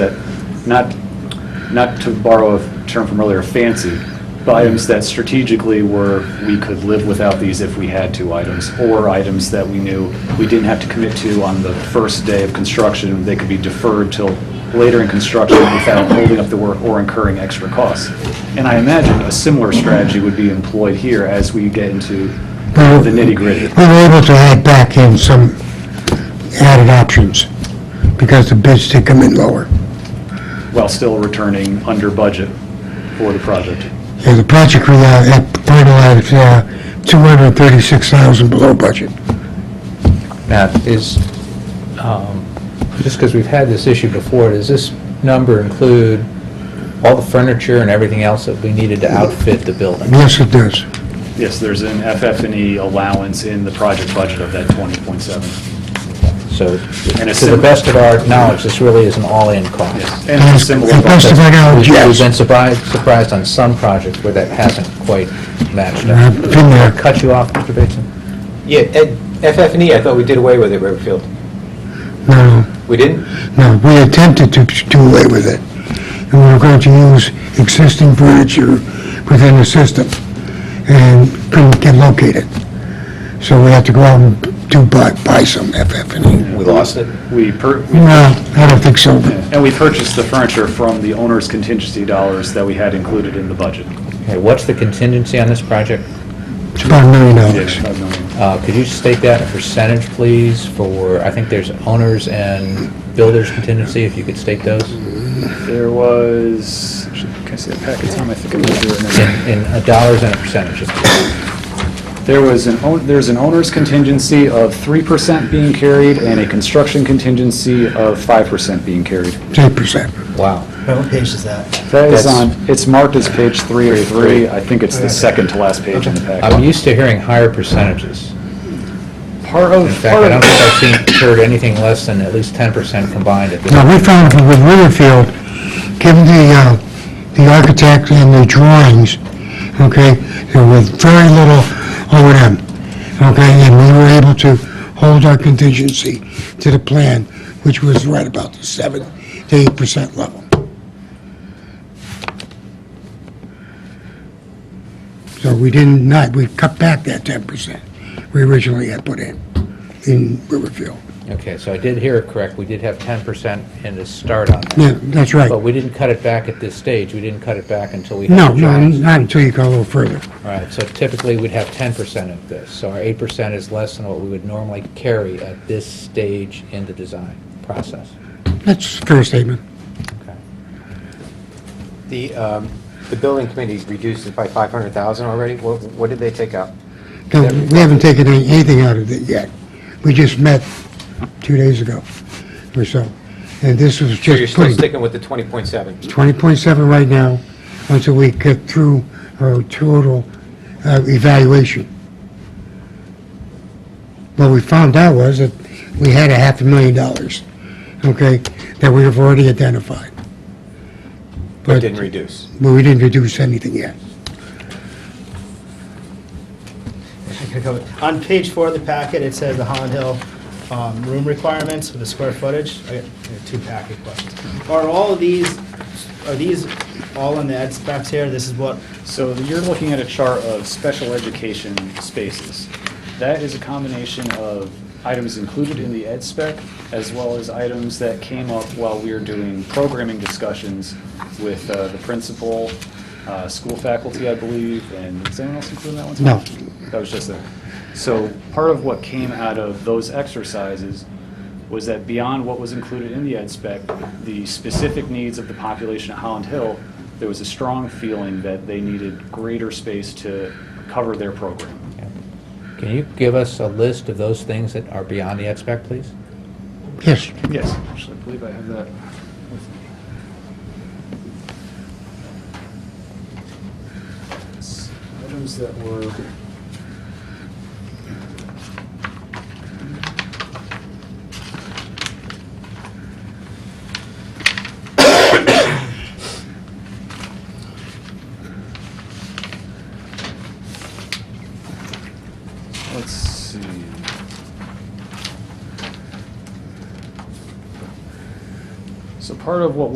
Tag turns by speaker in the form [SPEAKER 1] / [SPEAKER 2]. [SPEAKER 1] not, not to borrow a term from earlier, fancy, but items that strategically were, we could live without these if we had to items, or items that we knew we didn't have to commit to on the first day of construction, they could be deferred till later in construction without holding up the work or incurring extra costs. And I imagine a similar strategy would be employed here as we get into the nitty-gritty.
[SPEAKER 2] We were able to add back in some added options because the bids did come in lower.
[SPEAKER 1] while still returning under budget for the project.
[SPEAKER 2] And the project we uh, had finalized, uh, 236,000 below budget.
[SPEAKER 3] Matt, is, um, just because we've had this issue before, does this number include all the furniture and everything else that we needed to outfit the building?
[SPEAKER 2] Yes, it does.
[SPEAKER 1] Yes, there's an FF&E E allowance in the project budget of that 20.7.
[SPEAKER 3] So,
[SPEAKER 1] And it's
[SPEAKER 3] to the
[SPEAKER 1] sim-
[SPEAKER 3] best of our knowledge, this really is an all-in cost.
[SPEAKER 1] Yes, and similar.
[SPEAKER 2] And best of my knowledge,
[SPEAKER 3] We've- We've been
[SPEAKER 2] yes.
[SPEAKER 3] surprised, surprised on some projects where that hasn't quite matched
[SPEAKER 1] Mm-hmm.
[SPEAKER 3] up.
[SPEAKER 2] I've been there.
[SPEAKER 3] Cut you off, Mr. Bateson?
[SPEAKER 4] Yeah, Ed, FF&E, E, I thought we did away with it, Riverfield.
[SPEAKER 2] No,
[SPEAKER 4] We didn't?
[SPEAKER 2] no, we attempted to do away with it. And we were going to use existing furniture within the system and couldn't get located. So we had to go out and do, buy, buy some FF&E.
[SPEAKER 5] We lost it.
[SPEAKER 1] We, pur- we-
[SPEAKER 2] No, E. I don't think so.
[SPEAKER 1] and we purchased the furniture from the owner's contingency dollars that we had included in the budget.
[SPEAKER 3] Okay, what's the contingency on this project?
[SPEAKER 2] It's about a million dollars.
[SPEAKER 1] Five million.
[SPEAKER 3] Uh, Could you state that in percentage, please, for, I think there's owners and builders contingency, if you could state those,
[SPEAKER 1] There was, can I see that packet, Tom? I think it was there. in there.
[SPEAKER 3] in in uh, dollars and a percentage.
[SPEAKER 1] There was an, own- there's an owner's contingency of 3% being carried and a construction contingency of 5% being carried.
[SPEAKER 2] Ten percent.
[SPEAKER 3] Wow.
[SPEAKER 6] What page is that?
[SPEAKER 1] That is
[SPEAKER 3] That's-
[SPEAKER 1] on, it's marked as page three or three. I think it's the second to last page in the
[SPEAKER 3] I'm
[SPEAKER 1] packet.
[SPEAKER 3] used to hearing higher percentages.
[SPEAKER 1] Part of,
[SPEAKER 3] In fact,
[SPEAKER 1] part
[SPEAKER 3] I don't
[SPEAKER 1] of,
[SPEAKER 3] think I've seen, heard anything less than at least 10% combined at this
[SPEAKER 2] Now, we found with Riverfield, given the, uh, the architect and the drawings, okay, there was very little O and M, okay, and we were able to hold our contingency to the plan, which was right about the seven to eight percent level. So we didn't not, we cut back that ten percent we originally had put in, in Riverfield.
[SPEAKER 3] Okay, so I did hear it correct, we did have 10% in the start on that.
[SPEAKER 2] Yeah, that's right.
[SPEAKER 3] But we didn't cut it back at this stage, we didn't cut it back until we
[SPEAKER 2] No,
[SPEAKER 3] had the
[SPEAKER 2] no,
[SPEAKER 3] drawings.
[SPEAKER 2] not until you go a little further.
[SPEAKER 3] All right, so typically, we'd have 10% of this, so our 8% is less than what we would normally carry at this stage in the design process.
[SPEAKER 2] That's a fair statement.
[SPEAKER 4] The, um, the building committee reduced it by 500,000 already? What, what did they take out?
[SPEAKER 2] No, We haven't taken any- anything out of it yet. We just met two days ago or so, and this was
[SPEAKER 4] So you're
[SPEAKER 2] just
[SPEAKER 4] still
[SPEAKER 2] putting
[SPEAKER 4] sticking with the 20.7?
[SPEAKER 2] 20.7 right now until we get through our total uh, evaluation. What we found out was that we had a half a million dollars, okay, that we have already identified.
[SPEAKER 4] But didn't reduce?
[SPEAKER 2] But we didn't reduce anything yet.
[SPEAKER 6] On page four of the packet, it says the Holland Hill um, room requirements with the square footage. I got I got two packet questions. Are all of these, are these all in the ed specs here? This is what,
[SPEAKER 1] so you're looking at a chart of special education spaces. That is a combination of items included in the ed spec as well as items that came up while we were doing programming discussions with uh, the principal, uh, school faculty, I believe, and is anyone else included in that one? Tom?
[SPEAKER 2] No.
[SPEAKER 1] That was just there. So part of what came out of those exercises was that beyond what was included in the ed spec, the specific needs of the population at Holland Hill, there was a strong feeling that they needed greater space to cover their program.
[SPEAKER 3] Can you give us a list of those things that are beyond the expect, please?
[SPEAKER 2] Yes,
[SPEAKER 1] Yes. Actually, I believe I have that. with me. It's Items that were. Let's see. So part of what